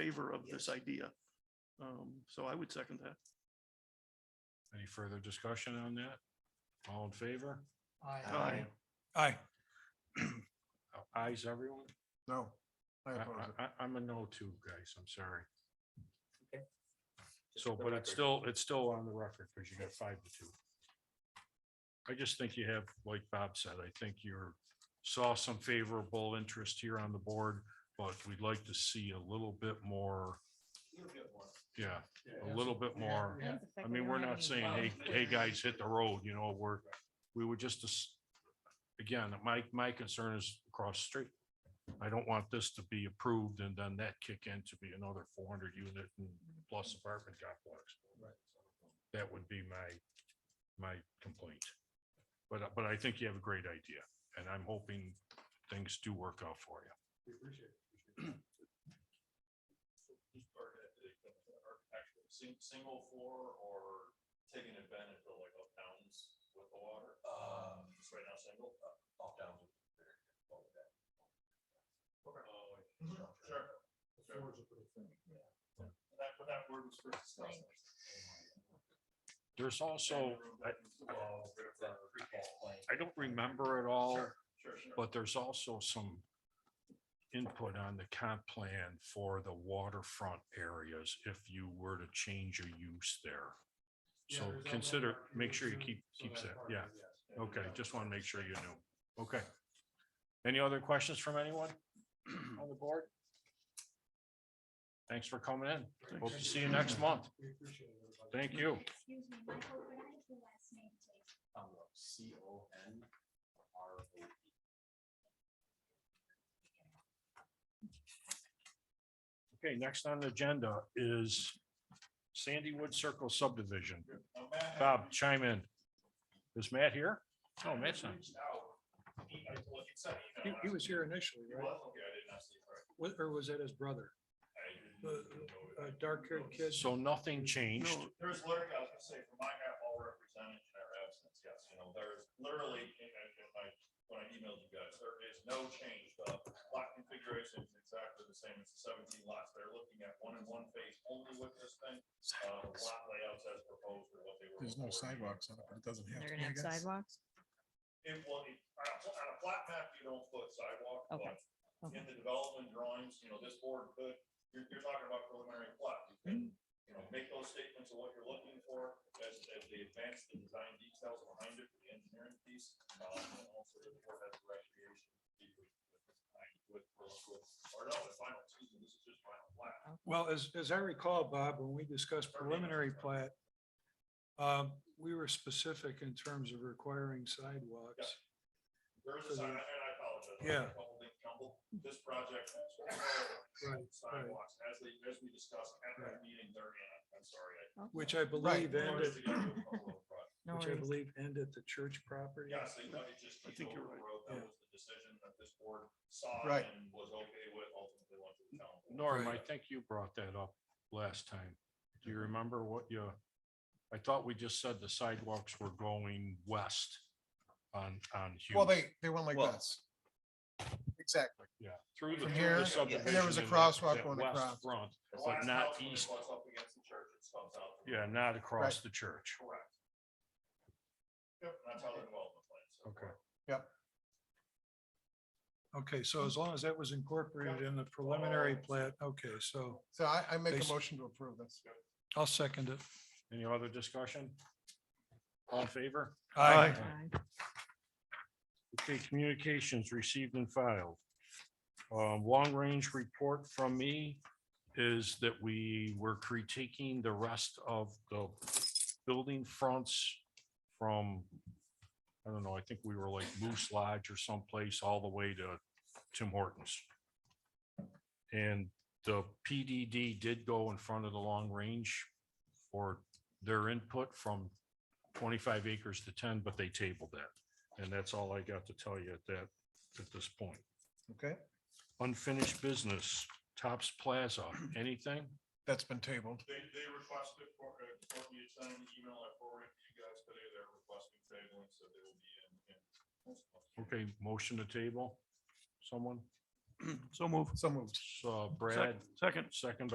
favor of this idea. Um, so I would second that. Any further discussion on that? All in favor? Aye. Aye. Eyes, Oh, everyone? No. I, I oppose it. I, I- I'm a no too, guys. I'm sorry. Okay. So, but it's still, it's still on the record because you got five to two. I just think you have, like Bob said, I think you're, saw some favorable interest here on the board, but we'd like to see a little bit more, yeah, a little bit more. I mean, we're not saying, hey, hey, guys, hit the road, you know, we're, we were just, as- again, my, my concern is across the street. I don't want this to be approved and then that kick in to be another four hundred unit and plus apartment complex. That would be my, my complaint. But, but I think you have a great idea and I'm hoping things do work out for you. single floor or taking advantage of like up downs with the water? Uh. Just right now, single? Up downs. Sure. That, but that word was first discussed. There's also, I, Sure, I don't remember it all. sure. But there's also some input on the comp plan for the waterfront areas if you were to change your use there. So consider, make sure you keep, keeps that, yeah. Okay, just want to make sure you knew. Okay. Any other questions from anyone on the board? Thanks for coming in. Hope to see you next month. Thank you. Excuse me, Michael, could I have your last name, please? C O N R O P. Okay, next on the agenda is Sandy Wood Circle subdivision. Oh, Bob, chime in. Is Matt here? Oh, Matt's not. He, he was here initially, He was? right? Okay, I did not see it correct. Wa- Or was that his brother? I The, didn't know uh, it. dark-haired kid? So nothing changed. Uh, No, There's literally, I was gonna say, for my half, all represented in our absence, yes, you know, there's literally, and, and and I, when I emailed you guys, there is no change. The lot configuration is exactly the same, it's seventeen lots, they're looking at one in one phase only with this thing. Uh, lot layouts as proposed or what they were. There's no before. sidewalks on it, but it doesn't have. to They're gonna be, I have guess. sidewalks? It will, it- on a, pl- on a flat map, you don't put sidewalk, Okay, but in the development drawings, you know, this board could, you're, you're talking about preliminary plot. You can, Mm-hmm. you know, make those statements of what you're looking for as, as they advance the design details behind it, the engineering piece. um, and also the board has the right to be able to be with- with- with- with- Or no, the final, excuse me, this is just final plat. Well, as, as I recall, Bob, when we discussed preliminary plat, um, we were specific in terms of requiring sidewalks. There is a sign, and I apologize. I Yeah. probably jumbled. This project. Right, Sidewalks, as they, as we discussed at that Right. meeting there, and I'm sorry. I- Which I believe Well, ended, it's the other proposal, but no which I worries. believe ended at the church property. Yes, they thought it just. I think you're over the right. road. That Yeah. was the decision that this board saw Right. and was okay with ultimately went to the town. board. Norm, I think you brought that up last time. Do you remember what you, I thought we just said the sidewalks were going west on, on Well, Hughes. they, they went like Well- this. Exactly. Yeah, through the, From through here, the and subdivision. there was a and that- crosswalk that going west across. Front, The but last not house when it east. butts up against the church, it comes out. yeah, not across the church. Correct. Yep, that's how the development plan. Okay. Okay, so as long as that was incorporated in the preliminary Oh. plat, okay, so So I, I make Basi- a motion to approve this. I'll second it. Any other discussion? All in favor? Aye. Aye. Okay, communications received and filed. Um, long range report from me is that we were critiquing the rest of the building fronts from, I don't know, I think we were like Moose Lodge or someplace all the way to Tim Hortons. And the PDD did go in front of the long range for their input from twenty-five acres to ten, but they tabled that. And that's all I got to tell you at that, at this point. Okay, Unfinished business, Tops Plaza, anything? that's been tabled. They, they requested for, uh, for you to send an email, I forwarded to you guys today, they're requesting tabling, so they will be in. in- Okay, motion to table, someone, So move. So moved. so Brad, Second. second